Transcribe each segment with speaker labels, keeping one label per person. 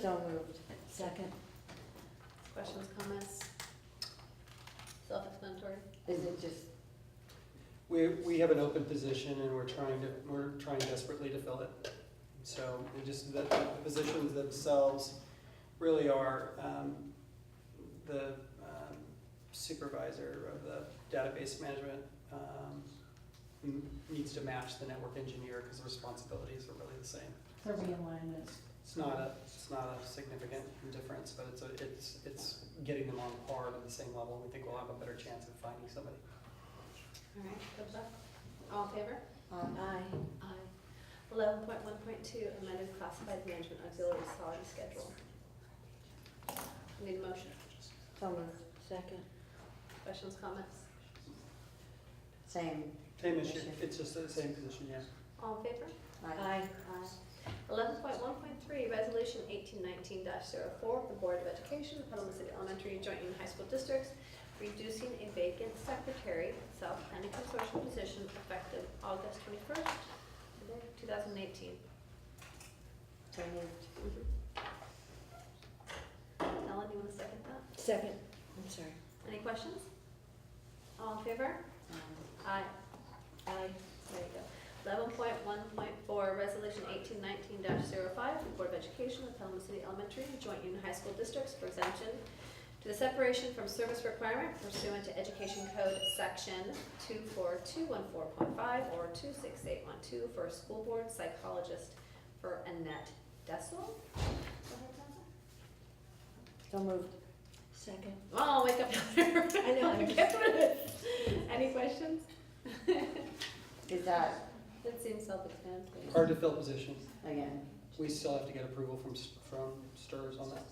Speaker 1: So moved. Second.
Speaker 2: Questions, comments? Self-explanatory.
Speaker 1: Is it just,
Speaker 3: We, we have an open position and we're trying to, we're trying desperately to fill it. So, it just, the, the positions themselves really are, um, the um, supervisor of the database management, um, n- needs to match the network engineer, cause the responsibilities are really the same.
Speaker 4: So realignment.
Speaker 3: It's not a, it's not a significant difference, but it's, a- it's, it's getting them on par to the same level, we think we'll have a better chance of finding somebody.
Speaker 2: All right, thumbs up. All in favor?
Speaker 1: aye,
Speaker 2: Aye. Eleven point one point two, amended classified management auxiliary salary schedule. Need a motion?
Speaker 1: so moved. Second.
Speaker 2: Questions, comments?
Speaker 1: Same.
Speaker 3: Same issue,
Speaker 1: Issue.
Speaker 3: it's just the same position, yeah.
Speaker 2: All in favor?
Speaker 1: Aye.
Speaker 2: Eleven point one point three, resolution eighteen nineteen 4 the Board of Education, Petaluma City Elementary, Joint Union High School Districts, reducing a vacant secretary, South Planning Consortium position effective August twenty-first, two thousand eighteen. Mm-hmm.
Speaker 1: So moved.
Speaker 2: Ellen, you want to second that?
Speaker 1: Second. I'm sorry.
Speaker 2: Any questions? All in favor?
Speaker 1: Um,
Speaker 2: Aye.
Speaker 1: Aye.
Speaker 2: There you go. Eleven point one point four, resolution eighteen nineteen 5 the Board of Education of Pelham City Elementary and Joint Union High School Districts for exemption to the separation from service requirement pursuant to Education Code Section two four two one four point five or two six eight one two for a school board psychologist for Annette Dessel.
Speaker 1: So moved. Second.
Speaker 2: Oh, wake up. I
Speaker 1: know, I'm
Speaker 2: Any questions?
Speaker 1: Is that,
Speaker 2: That seems self-explanatory.
Speaker 3: Hard to fill positions.
Speaker 1: again,
Speaker 3: We still have to get approval from, S- from STRS on that.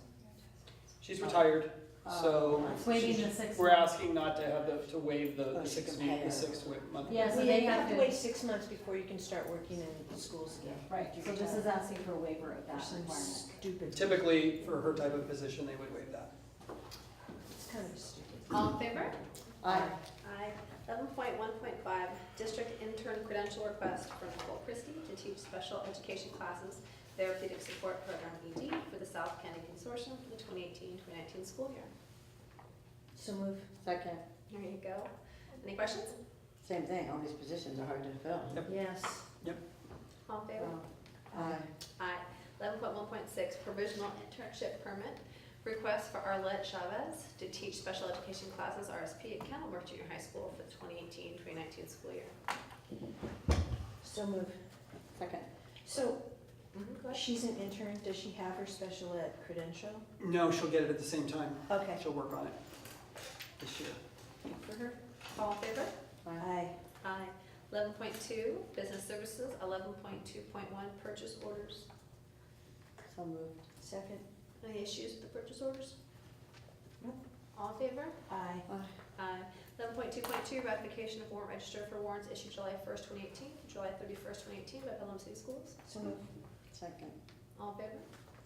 Speaker 3: She's retired, so
Speaker 1: Oh.
Speaker 4: Waiting the six.
Speaker 3: we're
Speaker 4: months.
Speaker 3: asking not to have the, to waive the
Speaker 1: Oh,
Speaker 3: the six
Speaker 1: she can
Speaker 3: week,
Speaker 1: pay her.
Speaker 3: the six wi- month.
Speaker 4: Yeah, so they have to,
Speaker 5: six months before you can start working in schools again.
Speaker 4: right, so this is asking for a waiver of that requirement.
Speaker 5: Stupid.
Speaker 3: Typically, for her type of position, they would waive that.
Speaker 5: It's kind of stupid.
Speaker 2: All in favor?
Speaker 1: aye,
Speaker 2: Aye. Eleven point one point five, district intern credential request for Nicole Christie to teach special education classes, therapeutic support program ED for the South County Consortium for the 2018-2019 school year.
Speaker 5: So move.
Speaker 1: second,
Speaker 2: There you go. Any questions?
Speaker 1: same thing, all these positions are hard to fill.
Speaker 3: Yep.
Speaker 5: Yes.
Speaker 2: All in favor?
Speaker 1: Um, Aye,
Speaker 2: Aye. Eleven point one point six, provisional internship permit, request for Arlette Chavez to teach special education classes RSP at Kenilworth Junior High School for the 2018-2019 school year.
Speaker 5: So move.
Speaker 1: second.
Speaker 5: So
Speaker 2: Mhm, go ahead.
Speaker 5: she's an intern. Does she have her special ed credential?
Speaker 3: No, she'll get it at the same time.
Speaker 1: Uh-huh.
Speaker 5: Okay.
Speaker 3: She'll work on it this year.
Speaker 2: For her. All in favor?
Speaker 5: Aye.
Speaker 2: Aye. Eleven point two, business services, eleven point two point one, purchase orders.
Speaker 1: So moved.
Speaker 5: Second.
Speaker 2: Any issues with the purchase orders?
Speaker 5: Nope.
Speaker 2: All in favor?
Speaker 5: Aye.
Speaker 1: Uh-huh.
Speaker 2: Aye. Eleven point two point two, ratification of warrant register for warrants issued July first, twenty eighteen, July thirty-first, twenty eighteen by Pelham City Schools.
Speaker 5: So move.
Speaker 1: Second.
Speaker 2: All in favor?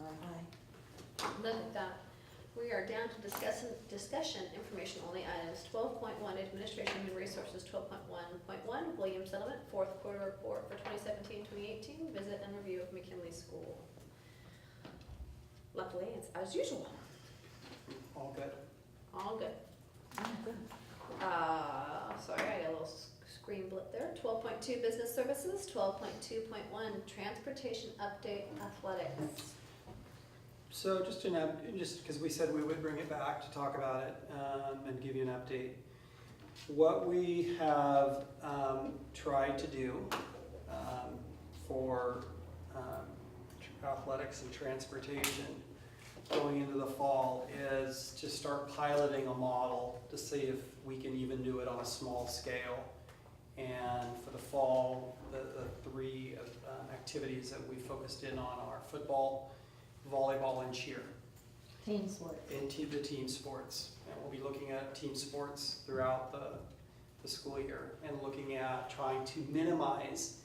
Speaker 1: Aye.
Speaker 5: Aye.
Speaker 2: Look at that. We are down to discussion, discussion information only items, twelve point one, administration and resources, twelve point one point one, Williams Settlement, fourth quarter report for 2017-2018. visit and review of McKinley School. Luckily, it's as usual,
Speaker 3: All good.
Speaker 2: all good.
Speaker 5: Oh,
Speaker 2: Uh, sorry, I got a little s- screen blip there. Twelve point two, business services, twelve point two point one, transportation update athletics.
Speaker 3: So just an up, just because we said we would bring it back to talk about it um, and give you an update. What we have um, tried to do um, for um, tr- athletics and transportation going into the fall is to start piloting a model to see if we can even do it on a small scale. And for the fall, the, the three uh, activities that we focused in on are football, volleyball and cheer
Speaker 4: Team sports.
Speaker 3: in te- the team sports. And we'll be looking at team sports throughout the, the school year and looking at trying to minimize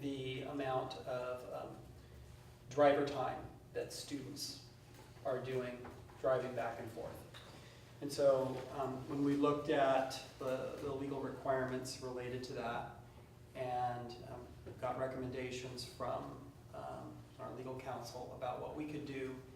Speaker 3: the amount of um, driver time that students are doing driving back and forth. And so um, when we looked at the, the legal requirements related to that and um, got recommendations from um, our legal counsel about what we could do